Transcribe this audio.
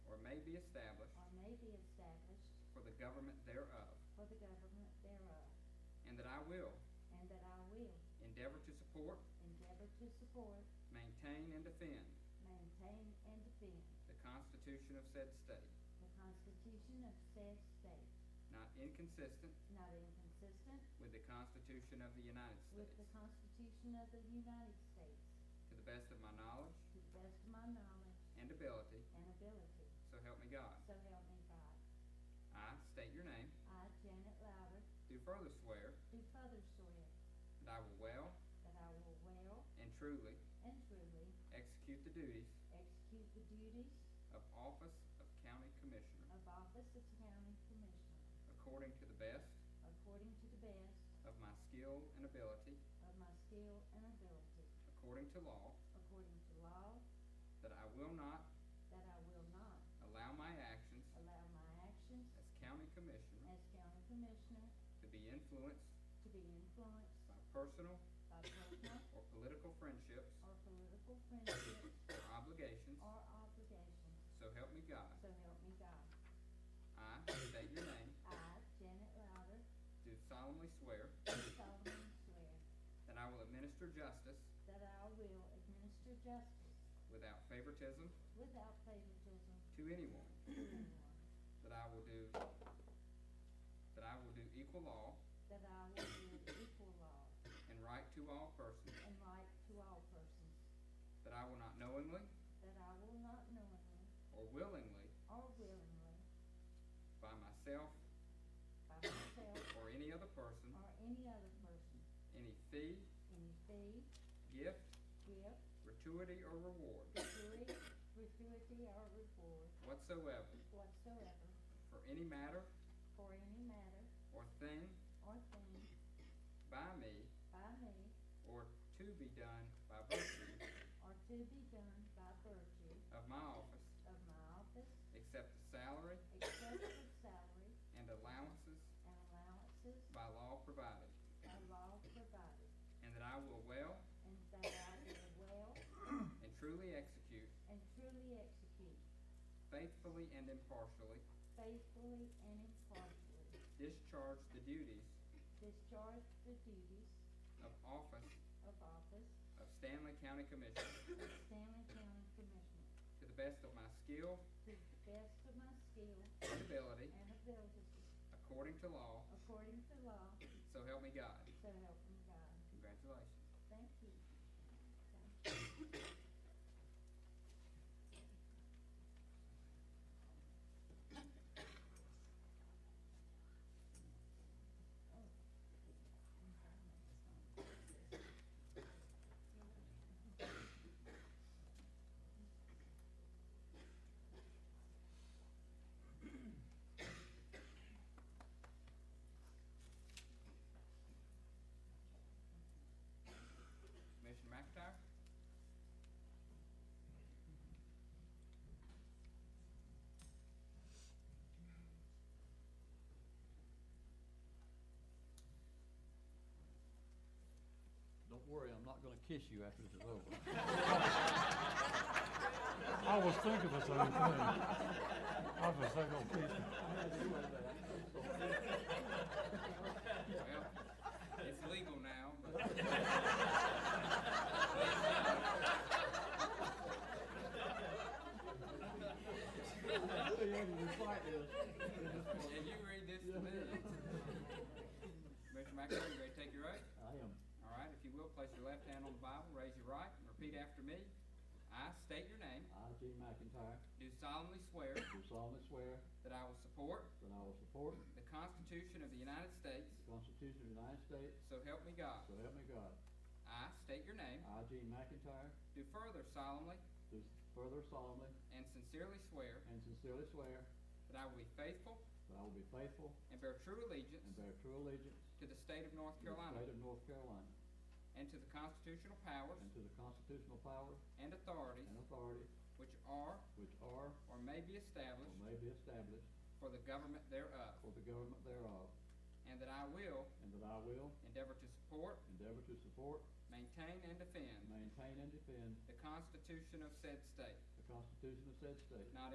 be established for the government thereof, for the government thereof, and that I will and that I will endeavor to support, endeavor to support, maintain, and defend maintain, and defend the Constitution of said state, the Constitution of said state, not inconsistent not inconsistent with the Constitution of the United with States, the Constitution of the United States, to the best of my knowledge to the best of my knowledge and ability, and ability, so help me God. so help me God. I state your name, I, Janet Louder, do further swear do further swear that I will well that I will well and truly and truly execute the duties execute the duties of office of county commissioner of office of county commissioner according to the best according to the best of my skill and ability, of my skill and ability, according to law, according to law, that I will not that I will not allow my actions allow my actions as county commissioner as county commissioner to be influenced to be influenced by personal by personal or political friendships or political friendships or obligations, or obligations, so help me God. so help me God. I state your name, I, Janet Louder, do solemnly swear do solemnly swear that I will administer justice that I will administer justice without favoritism without favoritism to anyone, to anyone, that I will do, that I will do equal law that I will do equal law and right to all persons, and right to all persons, that I will not knowingly that I will not knowingly or willingly or willingly by myself by myself or any other person or any other person any fee, any fee, gift, gift, gratuity, or reward gratuity, gratuity, or reward whatsoever whatsoever for any matter for any matter or thing or thing by me by me or to be done by virtue or to be done by virtue of my office, of my office, except the salary except for salary and allowances and allowances by law provided, by law provided, and that I will well and that I will well and truly execute, and truly execute faithfully and impartially, faithfully and impartially discharge the duties discharge the duties of office of office of Stanley County Commissioner of Stanley County Commissioner to the best of my skill to the best of my skill and ability, and ability, according to law, according to law, so help me God. so help me God. Congratulations. Thank you. Okay. Commissioner McIntyre? Don't worry, I'm not gonna kiss you after this is over. I was thinking the same thing. I was oh, thinking of kissing. Well, it's legal now, but. Did you read this to me? Commissioner McIntyre, you ready to take your oath? I am. All right, if you will, place your left hand on the Bible, raise your right, and repeat after me. I state your name, I, Gene McIntyre, do solemnly swear do solemnly swear that I will support that I will support the Constitution of the United States, the Constitution of the United States, so help me God. so help me God. I state your name, I, Gene McIntyre, do further solemnly do further solemnly and sincerely swear and sincerely swear that I will be faithful that I will be faithful and bear true allegiance and bear true allegiance to the state of North to the Carolina state of North Carolina and to the constitutional powers and to the constitutional power and authorities and authority which are which are or may be or established may be established for the government thereof, for the government thereof, and that I will and that I will endeavor to support, endeavor to support, maintain, and defend maintain, and defend the Constitution of said state, the Constitution of said state, not